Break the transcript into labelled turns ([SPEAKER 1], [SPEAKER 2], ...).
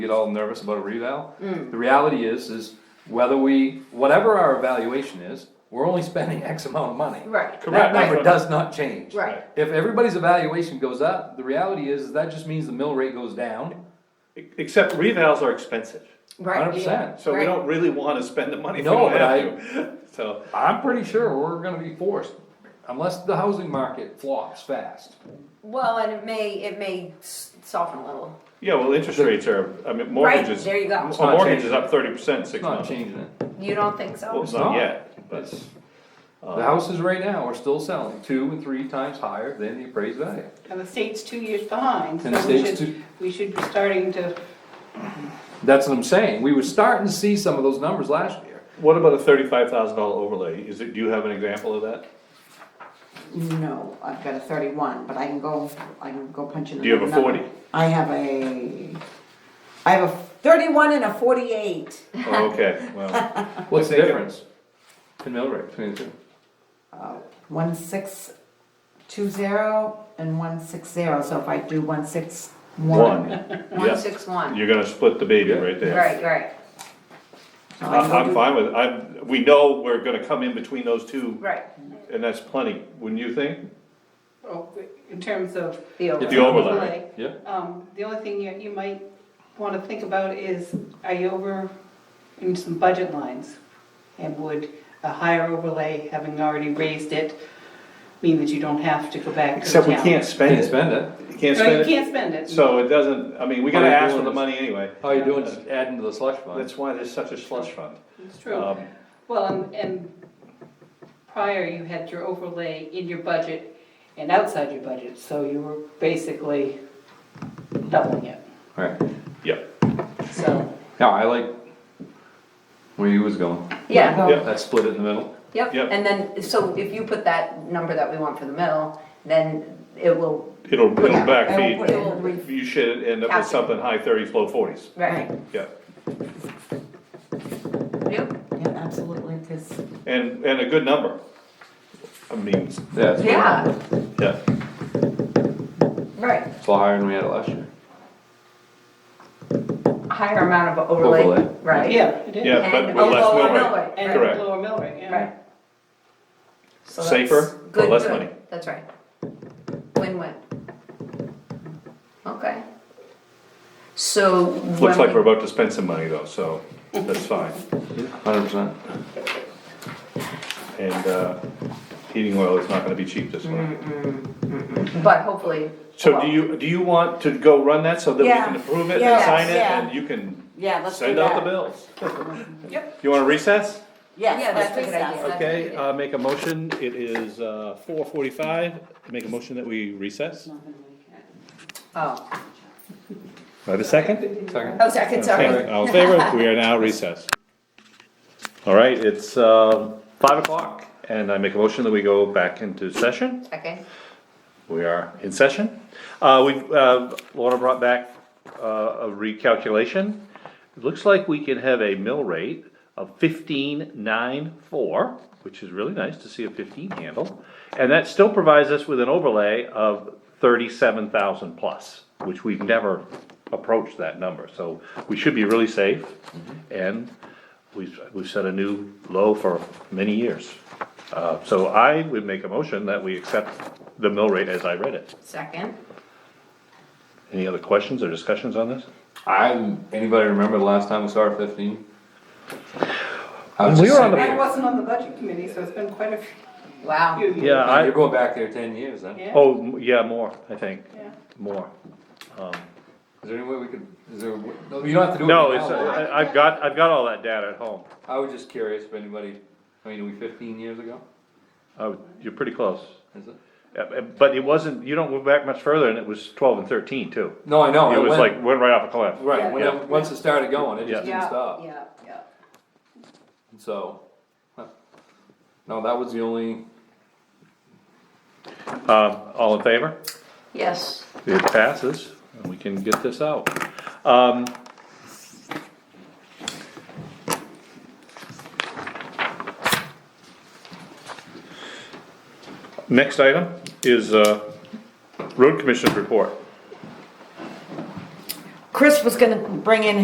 [SPEAKER 1] get all nervous about a reval.
[SPEAKER 2] Mm.
[SPEAKER 1] The reality is, is whether we, whatever our evaluation is, we're only spending X amount of money.
[SPEAKER 2] Right,
[SPEAKER 1] That
[SPEAKER 3] Correct.
[SPEAKER 1] number does not change.
[SPEAKER 2] right,
[SPEAKER 1] If everybody's evaluation goes up, the reality is, is that just means the mill rate goes down.
[SPEAKER 3] Except revals are expensive,
[SPEAKER 2] right.
[SPEAKER 1] 100%.
[SPEAKER 3] so we don't really wanna spend the money if we
[SPEAKER 1] No,
[SPEAKER 3] don't
[SPEAKER 1] but
[SPEAKER 3] have to, so.
[SPEAKER 1] I'm pretty sure we're gonna be forced, unless the housing market flops fast.
[SPEAKER 2] Well, and it may, it may s- soften a little.
[SPEAKER 3] Yeah, well, interest rates are, I mean,
[SPEAKER 2] Right,
[SPEAKER 3] mortgages,
[SPEAKER 2] there you go.
[SPEAKER 3] a
[SPEAKER 1] not
[SPEAKER 3] mortgage is
[SPEAKER 1] changing.
[SPEAKER 3] up thirty percent six
[SPEAKER 1] It's not
[SPEAKER 3] months.
[SPEAKER 1] changing it.
[SPEAKER 2] You don't think so?
[SPEAKER 3] Well,
[SPEAKER 1] It's
[SPEAKER 3] not
[SPEAKER 1] not.
[SPEAKER 3] yet, but, uh,
[SPEAKER 1] It's- The houses right now are still selling two and three times higher than the appraised value.
[SPEAKER 4] And the state's two years behind, so
[SPEAKER 1] And the
[SPEAKER 4] we
[SPEAKER 1] state's
[SPEAKER 4] should,
[SPEAKER 1] two-
[SPEAKER 4] we should be starting to,
[SPEAKER 1] That's what I'm saying, we were starting to see some of those numbers last year.
[SPEAKER 3] what about a thirty-five thousand dollar overlay, is it, do you have an example of that?
[SPEAKER 5] No, I've got a thirty-one, but I can go, I can go punch in
[SPEAKER 3] Do you have a
[SPEAKER 5] another
[SPEAKER 3] 40?
[SPEAKER 5] number. I have a, I have a thirty-one and a forty-eight.
[SPEAKER 3] Oh, okay, well,
[SPEAKER 1] What's the
[SPEAKER 3] They can-
[SPEAKER 1] difference in mill rate between the two?
[SPEAKER 5] One six two zero and one six zero, so if I do one six
[SPEAKER 3] one,
[SPEAKER 5] one.
[SPEAKER 2] One,
[SPEAKER 3] yeah,
[SPEAKER 2] six, one.
[SPEAKER 3] you're gonna split the baby right there.
[SPEAKER 2] Right, right,
[SPEAKER 5] so I
[SPEAKER 3] I'm,
[SPEAKER 5] can
[SPEAKER 3] I'm
[SPEAKER 5] do-
[SPEAKER 3] fine with, it. I'm, we know we're gonna come in between those two,
[SPEAKER 2] right.
[SPEAKER 3] and that's plenty, wouldn't you think?
[SPEAKER 4] oh, in terms of
[SPEAKER 2] The
[SPEAKER 3] The
[SPEAKER 2] overlay.
[SPEAKER 3] overlay.
[SPEAKER 4] overlay.
[SPEAKER 1] Yeah,
[SPEAKER 4] Um, the only thing you, you might wanna think about is, are you over in some budget lines? And would a higher overlay, having already raised it, mean that you don't have to go back to the
[SPEAKER 3] Except we
[SPEAKER 4] town?
[SPEAKER 3] can't spend
[SPEAKER 1] didn't
[SPEAKER 3] it,
[SPEAKER 1] spend it,
[SPEAKER 3] you can't
[SPEAKER 4] No, you
[SPEAKER 3] spend it,
[SPEAKER 4] can't spend it.
[SPEAKER 3] so it doesn't, I mean, we gotta
[SPEAKER 1] All you're
[SPEAKER 3] ask for
[SPEAKER 1] doing
[SPEAKER 3] the
[SPEAKER 1] is-
[SPEAKER 3] money anyway,
[SPEAKER 1] all you're doing is adding to the slush fund.
[SPEAKER 3] that's why there's such a slush fund.
[SPEAKER 4] It's true.
[SPEAKER 3] Um,
[SPEAKER 4] Well, and, and prior, you had your overlay in your budget and outside your budget, so you were basically doubling it,
[SPEAKER 1] Alright,
[SPEAKER 3] Yep,
[SPEAKER 4] so.
[SPEAKER 1] now, I like where you was going,
[SPEAKER 2] Yeah,
[SPEAKER 5] Go.
[SPEAKER 1] that split it in the middle.
[SPEAKER 2] yep.
[SPEAKER 3] Yep.
[SPEAKER 2] And then, so if you put that number that we want for the mill, then it will,
[SPEAKER 3] it'll, it'll
[SPEAKER 2] Yeah,
[SPEAKER 5] I will put
[SPEAKER 3] backfeed,
[SPEAKER 5] it in the-
[SPEAKER 3] you should end up with
[SPEAKER 2] Calculate.
[SPEAKER 3] something high thirties, low forties,
[SPEAKER 2] right,
[SPEAKER 3] yeah.
[SPEAKER 2] yep.
[SPEAKER 5] Yeah, absolutely, cause
[SPEAKER 3] And, and a good number. I mean,
[SPEAKER 1] Yeah, it's
[SPEAKER 2] Yeah,
[SPEAKER 3] yeah,
[SPEAKER 2] right.
[SPEAKER 1] it's a lot higher than we had it last year.
[SPEAKER 2] Higher amount of overlay,
[SPEAKER 1] Overlay.
[SPEAKER 2] right?
[SPEAKER 4] Yeah, it is.
[SPEAKER 3] yeah, but
[SPEAKER 2] And
[SPEAKER 3] with less
[SPEAKER 2] a lower
[SPEAKER 3] mill
[SPEAKER 2] mill
[SPEAKER 3] rate.
[SPEAKER 2] rate,
[SPEAKER 4] And
[SPEAKER 3] Correct.
[SPEAKER 4] lower mill rate, yeah.
[SPEAKER 2] Right. So that's
[SPEAKER 3] Safer, but
[SPEAKER 2] good,
[SPEAKER 3] less
[SPEAKER 2] good.
[SPEAKER 3] money.
[SPEAKER 2] That's right. Win-win. Okay. So.
[SPEAKER 3] Looks
[SPEAKER 2] when
[SPEAKER 3] like
[SPEAKER 2] we-
[SPEAKER 3] we're about to spend some money though, so that's fine.
[SPEAKER 1] Hundred percent.
[SPEAKER 3] And, uh, heating oil is not gonna be cheap this winter.
[SPEAKER 2] But hopefully.
[SPEAKER 3] So
[SPEAKER 2] well,
[SPEAKER 3] do you, do you want to go run that so that we
[SPEAKER 5] Yeah.
[SPEAKER 3] can approve it and
[SPEAKER 5] Yes,
[SPEAKER 3] sign it
[SPEAKER 5] yeah.
[SPEAKER 3] and you can
[SPEAKER 5] Yeah, let's do
[SPEAKER 3] send out the
[SPEAKER 5] that.
[SPEAKER 3] bills?
[SPEAKER 2] Yep.
[SPEAKER 3] You wanna recess?
[SPEAKER 2] Yeah,
[SPEAKER 5] Yes,
[SPEAKER 2] that's
[SPEAKER 5] let's
[SPEAKER 2] a
[SPEAKER 5] do
[SPEAKER 2] good
[SPEAKER 5] that.
[SPEAKER 2] idea.
[SPEAKER 3] Okay, uh, make a motion. It is, uh, four forty-five. Make a motion that we recess. Do
[SPEAKER 2] Oh,
[SPEAKER 3] I have a second?
[SPEAKER 1] Second,
[SPEAKER 2] oh, second, sorry.
[SPEAKER 3] All in favor? We are now recessed. All right, it's, um, five o'clock and I make a motion that we go back into session.
[SPEAKER 2] Second,
[SPEAKER 3] We are in session. Uh, we've, uh, Laura brought back, uh, a recalculation. It looks like we can have a mill rate of fifteen nine four, which is really nice to see a fifteen handle. And that still provides us with an overlay of thirty-seven thousand plus, which we've never approached that number. So we should be really safe and we've, we've set a new low for many years. Uh, so I would make a motion that we accept the mill rate as I read it.
[SPEAKER 2] second.
[SPEAKER 3] Any other questions or discussions on this?
[SPEAKER 1] I, anybody remember the last time we saw our fifteen? I was
[SPEAKER 3] When we
[SPEAKER 1] just
[SPEAKER 3] were on the-
[SPEAKER 4] I
[SPEAKER 1] sitting
[SPEAKER 4] wasn't on the budget committee, so it's been quite a few
[SPEAKER 2] Wow.
[SPEAKER 4] years.
[SPEAKER 3] Yeah,
[SPEAKER 1] there. You're
[SPEAKER 3] I,
[SPEAKER 1] going back there ten years then.
[SPEAKER 4] Yeah.
[SPEAKER 3] oh, m- yeah, more, I think,
[SPEAKER 4] Yeah.
[SPEAKER 3] more.
[SPEAKER 1] Is there any way we could, is there, a w- no, you don't have to do it now.
[SPEAKER 3] No, it's, uh,
[SPEAKER 1] Laura.
[SPEAKER 3] I- I've got, I've got all that data at home.
[SPEAKER 1] I was just curious if anybody, I mean, are we fifteen years ago?
[SPEAKER 3] Uh, You're pretty close.
[SPEAKER 1] Is it?
[SPEAKER 3] Uh, uh, But it wasn't, you don't go back much further and it was twelve and thirteen too.
[SPEAKER 1] No, I know.
[SPEAKER 3] It was
[SPEAKER 1] Oh, went-
[SPEAKER 3] like, went right off a cliff.
[SPEAKER 1] Right, when,
[SPEAKER 3] Yeah.
[SPEAKER 1] it- once it started going, it just
[SPEAKER 3] Yeah.
[SPEAKER 1] didn't stop,
[SPEAKER 4] Yeah, yeah.
[SPEAKER 1] so. huh. No, that was the only,
[SPEAKER 3] Um, all in favor?
[SPEAKER 2] Yes.
[SPEAKER 3] It passes, and we can get this out. Um, Next item is, uh, road commission's report.
[SPEAKER 5] Chris was gonna bring in